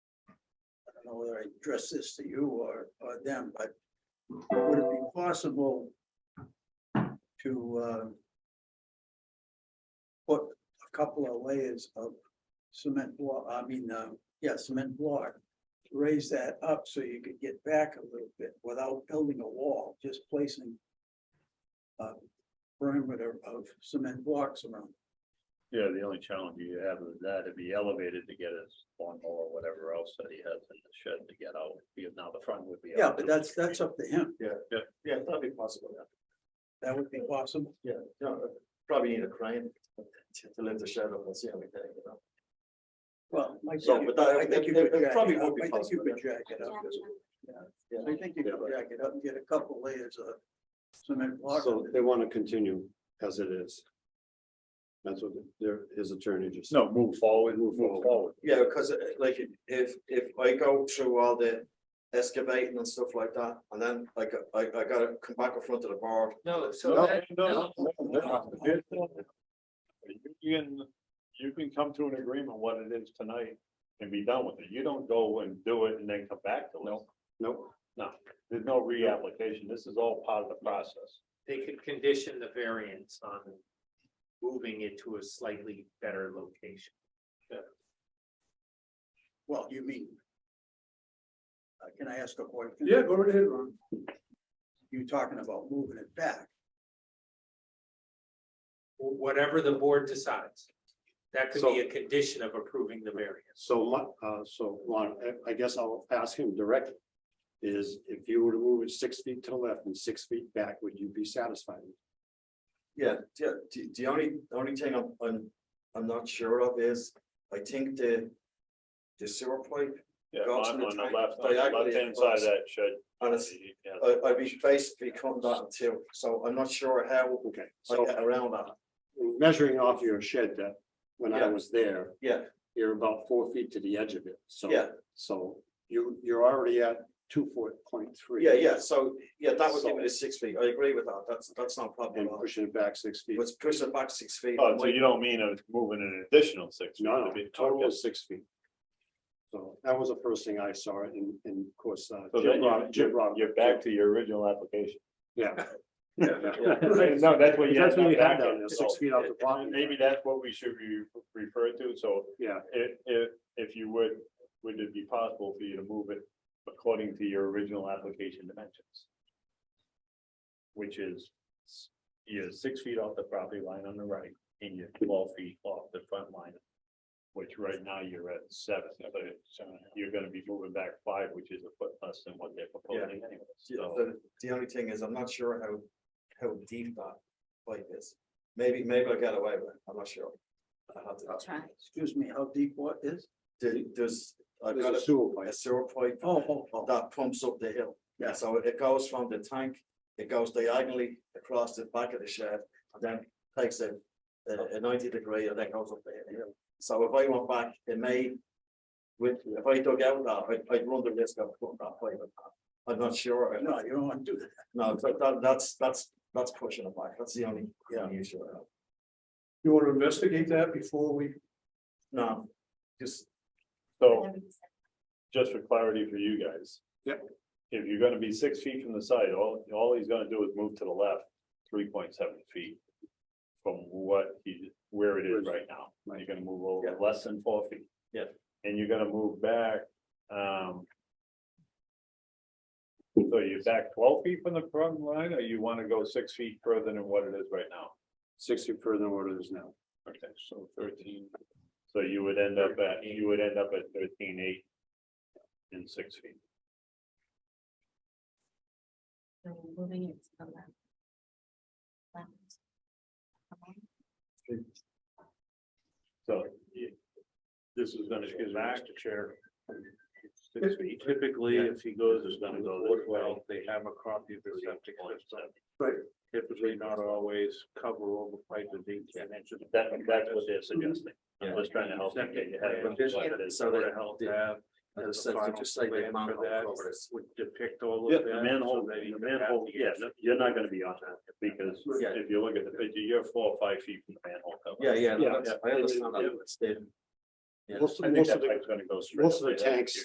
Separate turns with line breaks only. I don't know whether I address this to you or, or them, but would it be possible to, uh, put a couple of layers of cement block, I mean, uh, yeah, cement block, raise that up so you could get back a little bit without building a wall, just placing a perimeter of cement blocks around.
Yeah, the only challenge you have is that it'd be elevated to get his lawnmower or whatever else that he has in the shed to get out, because now the front would be.
Yeah,
out.
but that's, that's up to him.
Yeah, yeah, yeah, it's probably possible,
That would be possible.
yeah, yeah,
uh,
probably need a crane to lift the shed up and see how we can, you know.
Well, I
So,
think you-
but that-
I think you
that-
could
that
jack
probably
it
would
up.
be
I think you
possible,
could
yeah.
jack it up.
Yeah.
I think you
Yeah,
could
but-
jack it up and get a couple layers of cement block.
So they want to continue as it is. That's what their, his attorney just.
No, move forward,
Move
move
forward.
forward.
Yeah, because like if if I go through all the excavating and stuff like that, and then I got I I gotta come back in front of the board.
No,
so that-
no, no, no. You can, you can come to an agreement what it is tonight and be done with it. You don't go and do it and then come back to it.
Nope,
There's no reapplication. This is all part of the process.
they could condition the variance on moving it to a slightly better location.
Well, you mean. uh, Can I ask a question?
go right ahead, Ron.
You're talking about moving it back.
Wh- Whatever the board decides, that could be a condition of approving the variance.
so my, uh, so Lon, I- I guess I'll ask him directly. Is if you were to move it six feet to the left and six feet back, would you be satisfied?
Yeah, the the the only, the only thing I'm I'm I'm not sure of is, I think the. The sewer pipe,
Yeah,
Go
on
to the
on the
right-
left, on the
diagonally
left hand side of
across.
that shed.
and it's,
Yeah.
I I'd be basically cutting that in two, so I'm not sure how
Okay,
I
so
get around that.
uh, measuring off your shed that, when I
Yeah.
was there,
Yeah,
you're about four feet to the edge of it, so.
Yeah.
So you, you're already at two foot point three.
yeah, yeah, so, yeah, that would give
So-
me the six feet, I agree with that, that's that's not a problem
And
at all.
pushing it back six feet.
Let's push it back six feet.
Oh, so you don't mean it's moving an additional six? feet,
No,
it'd
no,
be-
total
okay.
is six feet. So that was the first thing I saw and, and of course, uh,
So
Jim
then
Rob,
you're,
Jim
you're,
Rob.
you're back to your original application.
Yeah.
Yeah.
No, that's what you.
That's what
now
you had
back
down
in.
there,
So
six feet off the
it-
property line.
Maybe that's what we should be referred to, so.
Yeah.
If, if, if you would, would it be possible for you to move it according to your original application dimensions? Which is, s- you're six feet off the property line on the right, and you're twelve feet off the front line. Which right now you're at seven, so you're gonna be moving back five, which is a foot less than what they're proposing anyway,
Yeah,
so.
the, the only thing is, I'm not sure how, how deep that pipe is. Maybe, maybe I got away with it, I'm not sure. I have to,
Try.
Excuse me, how deep what is?
there- there's, I've got
There's a
a-
sewer
a
pipe.
sewer pipe
Oh, oh, oh,
that pumps up the hill.
Yeah.
So it goes from the tank, it goes diagonally across the back of the shed, and then takes a, a a ninety degree, and then goes up the hill. So if I went back, it may, with, if I dug out that, I'd, I'd run the risk of putting that pipe in. I'm not sure.
no, you don't want to do that.
No, but that, that's, that's, that's pushing it back, that's the only, yeah, issue I have.
You wanna investigate that before we?
No, just,
So. just for clarity for you guys.
Yep.
If you're gonna be six feet from the side, all, all he's gonna do is move to the left, three point seven feet. From what he, where it is right now, you're gonna move over
Yeah.
less than four feet.
Yeah.
And you're gonna move back, um. So you're back twelve feet from the front line, or you wanna go six feet further than what it is right now?
Six feet further than what it is now.
Okay, so thirteen. So you would end up at, you would end up at thirteen eight. And six feet.
So Moving it to the left. Left. Okay.
So. y- This is gonna get back to chair. Six feet.
Typically,
Yeah.
if he goes
It's gonna
to
go
the
this
board
way.
well, they have a copy of the septic system.
Right.
Typically not always cover over pipe that they can.
That, that's what they're suggesting. I'm just trying to help you get your head around what it is.
So that helped have.
I
as
just
a
said,
final
just say the
plan
amount
for
of
that
cover is-
Would depict all of
Yeah,
that.
the manhole,
so that
the
you would have
manhole,
to get-
yeah, no, you're not gonna be on that, because
Yeah.
if you look at the picture, you're four or five feet from the manhole cover.
yeah, yeah, no,
Yeah,
that's- I understand
yeah.
that, it's the- Yeah.
Most
I
of,
think
most
that
of the,
pipe's gonna go straight.
most of
up
the
there.
tanks